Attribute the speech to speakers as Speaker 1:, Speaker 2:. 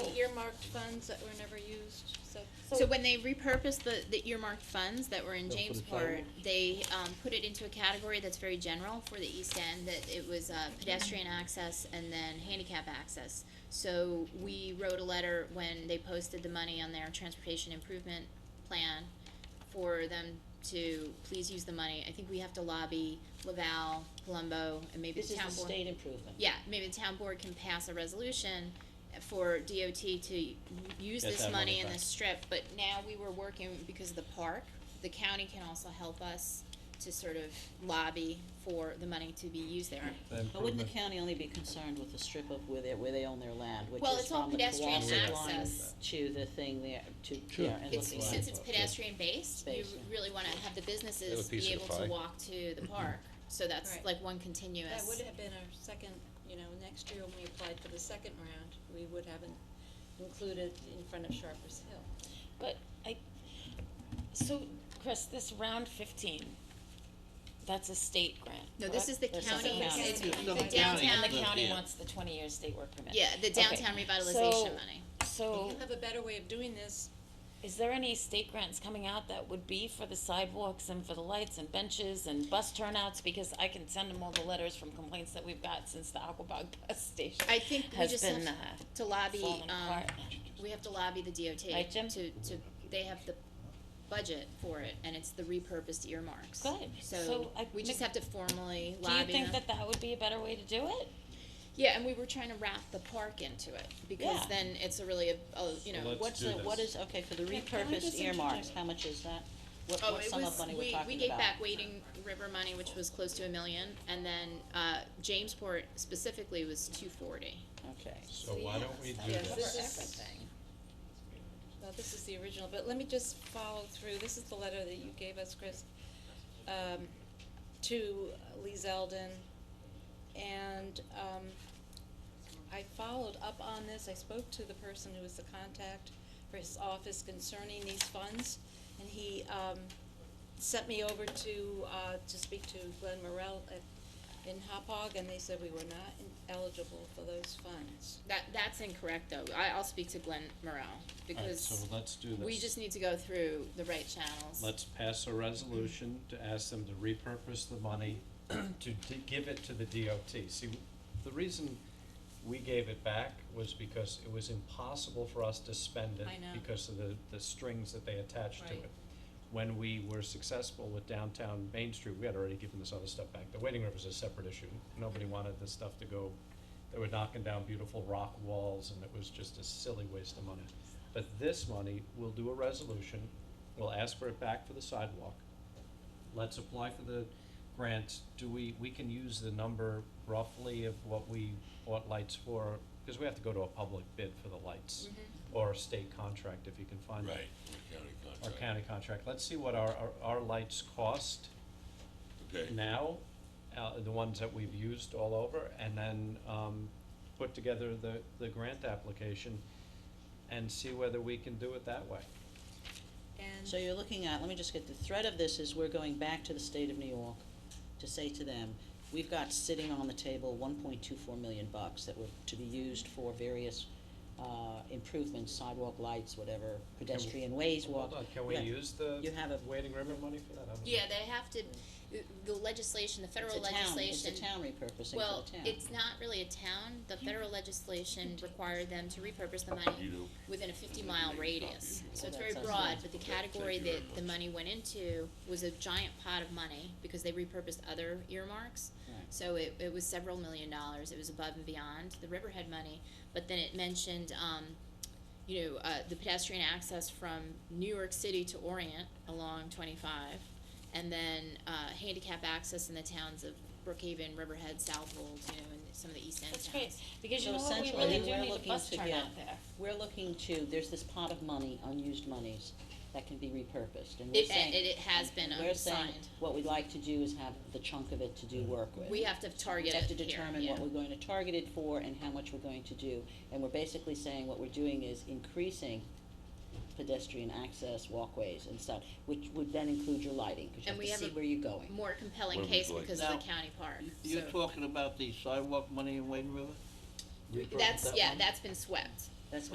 Speaker 1: earmarked funds that were never used, so.
Speaker 2: So when they repurposed the, the earmarked funds that were in
Speaker 3: They'll put it
Speaker 2: Jamesport, they, um, put it into a category that's very general for the East End, that it was, uh, pedestrian access and then handicap access. So we wrote a letter when they posted the money on their transportation improvement plan for them to please use the money. I think we have to lobby Laval, Palumbo, and maybe
Speaker 4: This
Speaker 2: the
Speaker 4: is
Speaker 2: town board.
Speaker 4: the state improvement.
Speaker 2: Yeah, maybe the town board can pass a resolution for DOT to u- use
Speaker 3: Get
Speaker 2: this
Speaker 3: that money
Speaker 2: money in
Speaker 3: back.
Speaker 2: this strip, but now we were working because of the park. The county can also help us to sort of lobby for the money to be used there.
Speaker 4: But wouldn't the county only be concerned with the strip of where they, where they own their land, which
Speaker 2: Well,
Speaker 4: is
Speaker 2: it's all
Speaker 4: from the
Speaker 2: pedestrian
Speaker 4: cooperative line
Speaker 2: access.
Speaker 4: to the thing there, to,
Speaker 3: Sure.
Speaker 4: yeah, and
Speaker 2: It's,
Speaker 4: looking at.
Speaker 2: since it's pedestrian based, you
Speaker 4: Space, yeah.
Speaker 2: really wanna have the
Speaker 5: Have a
Speaker 2: businesses
Speaker 5: piece
Speaker 2: be
Speaker 5: of the
Speaker 2: able to
Speaker 5: pie. Mm-hmm.
Speaker 2: walk to the park, so that's
Speaker 1: Right.
Speaker 2: like one continuous.
Speaker 1: That would have been our second, you know, next year when we applied for the second round, we would have in- included in front of Sharper's Hill.
Speaker 6: But I, so Chris, this round fifteen, that's a state grant.
Speaker 2: No, this is the
Speaker 6: correct? Or
Speaker 2: county,
Speaker 6: something
Speaker 2: it's
Speaker 6: else.
Speaker 2: the
Speaker 7: No,
Speaker 2: downtown.
Speaker 7: the county.
Speaker 6: And the
Speaker 7: Yeah.
Speaker 6: county
Speaker 7: Yeah.
Speaker 6: wants the twenty-year state work permit.
Speaker 2: Yeah, the
Speaker 6: Okay.
Speaker 2: downtown
Speaker 6: So-
Speaker 2: revitalization money.
Speaker 6: So,
Speaker 1: You have a better way of doing this,
Speaker 6: is there any state grants coming out that would be for the sidewalks and for the lights and benches and bus turnouts? Because I can send them all the letters from complaints that we've got since the Aquabog bus station
Speaker 2: I think we
Speaker 6: has
Speaker 2: just have
Speaker 6: been, uh,
Speaker 2: to lobby,
Speaker 6: falling
Speaker 2: um,
Speaker 6: apart.
Speaker 2: we have to lobby the DOT
Speaker 6: Right,
Speaker 2: to,
Speaker 6: Jim?
Speaker 2: to, they have the budget for it, and it's the repurposed earmarks.
Speaker 6: Good.
Speaker 2: So,
Speaker 6: So I
Speaker 2: we just
Speaker 6: make-
Speaker 2: have to formally
Speaker 6: Do you
Speaker 2: lobby
Speaker 6: think
Speaker 2: them.
Speaker 6: that that would be a better way to do it?
Speaker 2: Yeah, and we were trying to wrap the park into it, because
Speaker 6: Yeah.
Speaker 2: then it's a really, a- a, you know,
Speaker 3: let's
Speaker 2: what,
Speaker 4: What's the, what is, okay, for the
Speaker 7: Yeah, can I
Speaker 4: repurposed
Speaker 7: just
Speaker 4: earmarks,
Speaker 7: interject?
Speaker 4: how much is that? What,
Speaker 2: oh,
Speaker 4: what
Speaker 2: it
Speaker 4: sum of
Speaker 2: was,
Speaker 4: money we're talking
Speaker 2: we,
Speaker 4: about?
Speaker 2: we gave back Wading River money, which was close to a million, and then, uh, Jamesport specifically was two forty.
Speaker 4: Okay.
Speaker 3: So why don't we do
Speaker 1: Yes,
Speaker 3: this?
Speaker 1: this is, well, this is the original, but let me just follow through, this is the letter that you gave us, Chris, um, to Lee Zeldin, and, um, I followed up on this, I spoke to the person who was the contact for his office concerning these funds, and he, um, sent me over to, uh, to speak to Glenn Morrell at, in Hopog, and they said we were not eligible for those funds.
Speaker 2: That, that's incorrect, though, I, I'll speak to Glenn Morrell,
Speaker 3: Alright, so
Speaker 2: because
Speaker 3: let's do this.
Speaker 2: we just need to go through the right channels.
Speaker 3: Let's pass a resolution to ask them to repurpose the money, to, to give it to the DOT. See, the reason we gave it back was because it was impossible for us to spend it
Speaker 1: I know.
Speaker 3: because of the, the strings that they attached to it.
Speaker 1: Right.
Speaker 3: When we were successful with downtown Main Street, we had already given this other stuff back. The Wading River's a separate issue. Nobody wanted this stuff to go, they were knocking down beautiful rock walls and it was just a silly waste of money. But this money, we'll do a resolution, we'll ask for it back for the sidewalk. Let's apply for the grant. Do we, we can use the number roughly of what we bought lights for, because we have to go to a public bid for the lights. Or a state contract if you can find that.
Speaker 7: Right, the county
Speaker 3: Or
Speaker 7: contract.
Speaker 3: county contract. Let's see what our, our, our lights cost
Speaker 7: Okay.
Speaker 3: now, uh, the ones that we've used all over, and then, um, put together the, the grant application and see whether we can do it that way.
Speaker 1: And
Speaker 4: So you're looking at, let me just get, the thread of this is we're going back to the state of New York to say to them, we've got sitting on the table one point two four million bucks that were to be used for various, uh, improvements, sidewalk lights, whatever, pedestrian ways, walk.
Speaker 3: Hold on, can we
Speaker 4: Yeah.
Speaker 3: use the
Speaker 4: You have a-
Speaker 3: Wading River money for that? I don't know.
Speaker 2: Yeah, they have to, the legislation, the
Speaker 4: It's
Speaker 2: federal
Speaker 4: a town, it's
Speaker 2: legislation.
Speaker 4: a town repurposing for the town.
Speaker 2: Well, it's not really a town, the federal legislation required them to repurpose the
Speaker 7: You
Speaker 2: money
Speaker 7: do.
Speaker 2: within a fifty mile radius. So it's
Speaker 4: Well,
Speaker 2: very
Speaker 4: that sounds
Speaker 2: broad,
Speaker 4: nice.
Speaker 2: but the
Speaker 7: Okay, thank
Speaker 2: category
Speaker 7: you very
Speaker 2: that the
Speaker 7: much.
Speaker 2: money went into was a giant pot of money, because they repurposed other earmarks.
Speaker 4: Right.
Speaker 2: So it, it was several million dollars, it was above and beyond the Riverhead money, but then it mentioned, um, you know, uh, the pedestrian access from New York City to Orient along twenty-five, and then, uh, handicap access in the towns of Brookhaven, Riverhead, Southwold, you know, and some of the East End towns.
Speaker 6: That's great, because
Speaker 4: So
Speaker 6: you know what, we
Speaker 4: essentially,
Speaker 6: really do
Speaker 4: we're
Speaker 6: need a
Speaker 4: looking
Speaker 6: bus
Speaker 4: to get-
Speaker 6: turnout there.
Speaker 4: We're looking to, there's this pot of money, unused monies, that can be repurposed, and we're
Speaker 2: It,
Speaker 4: saying.
Speaker 2: and it, it has been
Speaker 4: We're saying,
Speaker 2: assigned,
Speaker 4: what we'd like to do is have the chunk of it to do work with.
Speaker 2: we have to target it here,
Speaker 4: We have to determine
Speaker 2: yeah.
Speaker 4: what we're going to target it for and how much we're going to do. And we're basically saying what we're doing is increasing pedestrian access, walkways and stuff, which would then include your lighting, because
Speaker 2: And we
Speaker 4: you have
Speaker 2: have
Speaker 4: to
Speaker 2: a
Speaker 4: see where you're going.
Speaker 2: More compelling
Speaker 7: What would
Speaker 2: case
Speaker 7: you like?
Speaker 2: because of the
Speaker 8: Now,
Speaker 2: county park, so.
Speaker 8: You're talking about the sidewalk money in Wading River?
Speaker 2: That's, yeah, that's been swept.